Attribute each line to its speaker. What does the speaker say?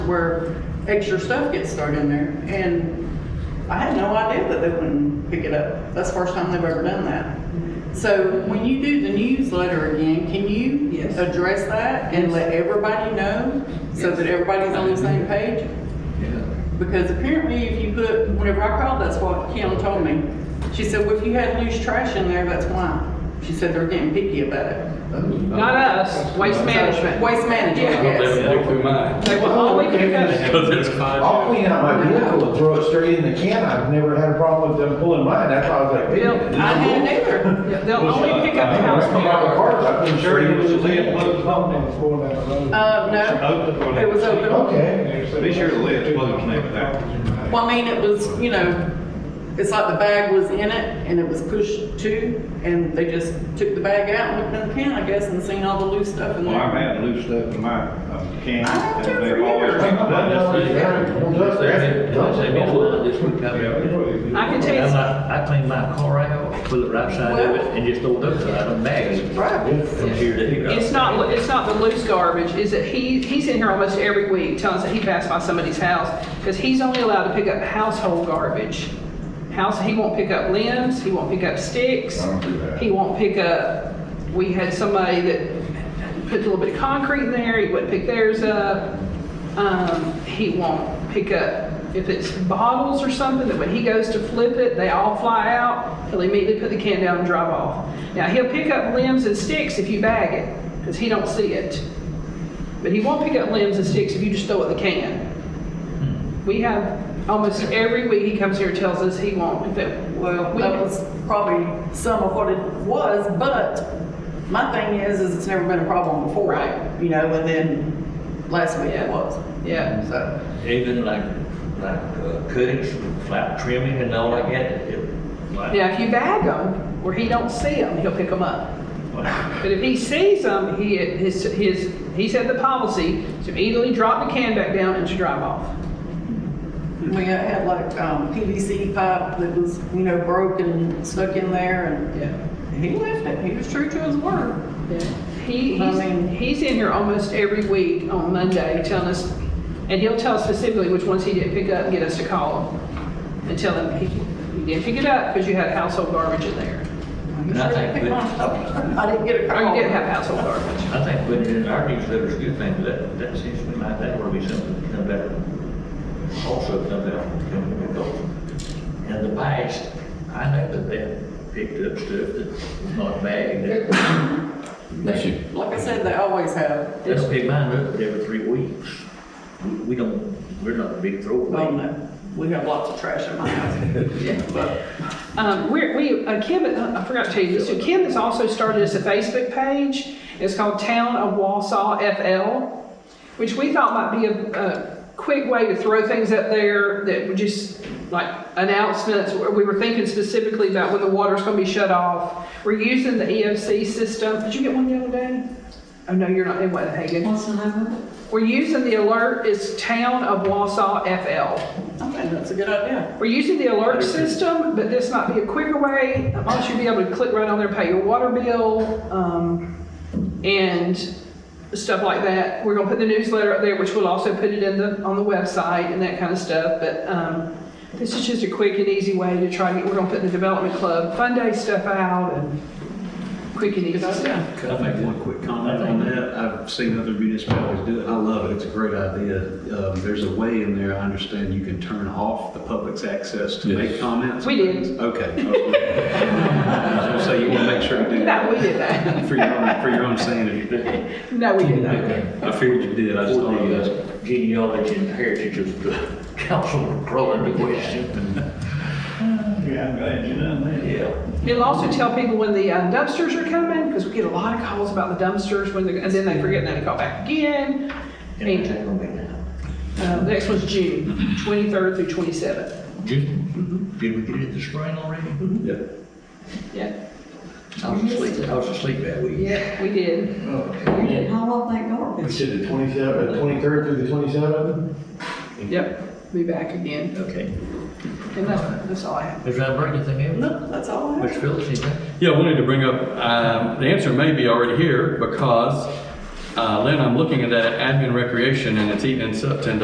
Speaker 1: where extra stuff gets stored in there. And I had no idea that they wouldn't pick it up. That's the first time they've ever done that. So when you do the newsletter again, can you
Speaker 2: Yes.
Speaker 1: address that and let everybody know so
Speaker 2: Yes.
Speaker 1: that everybody's on the same page?
Speaker 3: Yeah.
Speaker 1: Because apparently if you put, whenever I called, that's what Kim told me. She said, well, if you had loose trash in there, that's why. She said they're getting picky about it.
Speaker 2: Not us, waste management.
Speaker 1: Waste management,
Speaker 3: They
Speaker 1: yes.
Speaker 3: would look through mine.
Speaker 2: They were all we could go.
Speaker 3: Because it's five.
Speaker 4: I'll clean out my vehicle and throw it straight in the can. I've never had a problem with them pulling mine. That's why I was like, hey.
Speaker 2: Bill,
Speaker 1: I hadn't either.
Speaker 2: They'll only pick up the
Speaker 4: When I
Speaker 2: house
Speaker 4: come out of the
Speaker 2: mail.
Speaker 4: car, I put it straight into the can.
Speaker 1: Uh, no, it was open.
Speaker 4: Okay.
Speaker 5: Be sure the lid's plugged in there with that.
Speaker 1: Well, I mean, it was, you know, it's like the bag was in it and it was pushed to, and they just took the bag out and looked in the can, I guess, and seen all the loose stuff in
Speaker 5: Well, I've
Speaker 1: there.
Speaker 5: had loose stuff in my uh, can.
Speaker 1: I have too
Speaker 5: and they've
Speaker 1: for
Speaker 5: always
Speaker 1: years.
Speaker 5: picked it
Speaker 4: I
Speaker 5: up.
Speaker 4: know,
Speaker 2: I can tell you, some-
Speaker 6: I clean my car out, put it right side of it, and just throw it up, so I don't bag it
Speaker 1: Right.
Speaker 6: from here to here.
Speaker 2: it's not, it's not the loose garbage, is that he, he's in here almost every week telling us that he passed by somebody's house, because he's only allowed to pick up household garbage. House, he won't pick up limbs, he won't pick up sticks.
Speaker 4: I don't do that.
Speaker 2: He won't pick up, we had somebody that put a little bit of concrete in there, he wouldn't pick theirs up. Um, he won't pick up, if it's bottles or something, that when he goes to flip it, they all fly out, he'll immediately put the can down and drive off. Now, he'll pick up limbs and sticks if you bag it, because he don't see it. But he won't pick up limbs and sticks if you just throw it in the can. We have, almost every week, he comes here and tells us he won't, if it,
Speaker 1: Well,
Speaker 2: We-
Speaker 1: that was probably some of what it was, but my thing is, is it's never been a problem before.
Speaker 2: Right.
Speaker 1: You know, and then last week it was,
Speaker 2: yeah.
Speaker 1: so.
Speaker 6: Even like, like uh, cuttings, flat trimming and all like that, it, like,
Speaker 2: Now, if you bag them, where he don't see them, he'll pick them up. But if he sees them, he, his, his, he said the policy to immediately drop the can back down and to drive off.
Speaker 1: We had like um, PVC pipe that was, you know, broken and stuck in there and
Speaker 2: Yeah.
Speaker 1: he left it. He was true to his word.
Speaker 2: He,
Speaker 1: I
Speaker 2: he's,
Speaker 1: mean-
Speaker 2: he's in here almost every week on Monday telling us, and he'll tell us specifically which ones he didn't pick up and get us to call him and tell him he, you didn't pick it up because you had household garbage in there.
Speaker 6: And I think that-
Speaker 1: I didn't get a
Speaker 2: Or
Speaker 1: call.
Speaker 2: you did have household garbage.
Speaker 6: I think putting it in our newsletter is a good thing, that, that seems to me like that would be something to come back, also come back, come back over. In the past, I know that they picked up stuff that was not bagged, they
Speaker 1: Like I said, they always have.
Speaker 6: they don't pick mine up every three weeks. We, we don't, we're not a big throwaway.
Speaker 1: Well, no, we have lots of trash in my house. But
Speaker 2: Um, we're, we, uh, Kim, I forgot to tell you this, so Kim has also started us a Facebook page. It's called Town of Wausau FL, which we thought might be a, a quick way to throw things up there that would just, like announcements. We were thinking specifically about when the water's gonna be shut off. We're using the EOC system. Did you get one the other day? Oh, no, you're not in Weatherhaven. We're using the alert, it's Town of Wausau FL.
Speaker 1: I think that's a good idea.
Speaker 2: We're using the alert system, but this might be a quicker way. I want you to be able to click right on there, pay your water bill, um, and stuff like that. We're gonna put the newsletter up there, which we'll also put it in the, on the website and that kind of stuff, but, um, this is just a quick and easy way to try to get, we're gonna put the development club fun day stuff out and quick and easy stuff.
Speaker 3: Could I make one quick comment on that? I've seen other municipalities do it, I love it, it's a great idea. Um, There's a way in there, I understand, you can turn off the public's access to make comments.
Speaker 2: We did.
Speaker 3: Okay. So you want to make sure to do
Speaker 2: No,
Speaker 3: that
Speaker 2: we did that.
Speaker 3: for your own, for your own sanity.
Speaker 2: No, we did not.
Speaker 3: Okay. I figured you did, I just
Speaker 6: For
Speaker 3: thought you
Speaker 6: the uh, genealogy and heritage of the council, probably the question,
Speaker 5: Yeah, I'm glad you done that.
Speaker 6: yeah.
Speaker 2: It'll also tell people when the uh, dumpsters are coming, because we get a lot of calls about the dumpsters when they're, and then they forget, and then they call back again.
Speaker 6: And
Speaker 2: And, uh, the next one's June, 23rd through 27th.
Speaker 6: Did, did we get it this spring already?
Speaker 3: did.
Speaker 2: Yeah,
Speaker 6: I was asleep, I was asleep that week.
Speaker 2: yeah, we did.
Speaker 7: You didn't haul off that
Speaker 4: You
Speaker 7: garbage.
Speaker 4: said the twenty-seventh, twenty-third through the twenty-seventh?
Speaker 2: Yep, be back again.
Speaker 6: Okay.
Speaker 2: And that's, that's all I have.
Speaker 6: Does that bring anything else?
Speaker 1: No, that's all I have.
Speaker 6: Which Phillips, anything?
Speaker 8: Yeah, I wanted to bring up, um, the answer may be already here because, uh, Lynn, I'm looking at that admin recreation and it's eating us up ten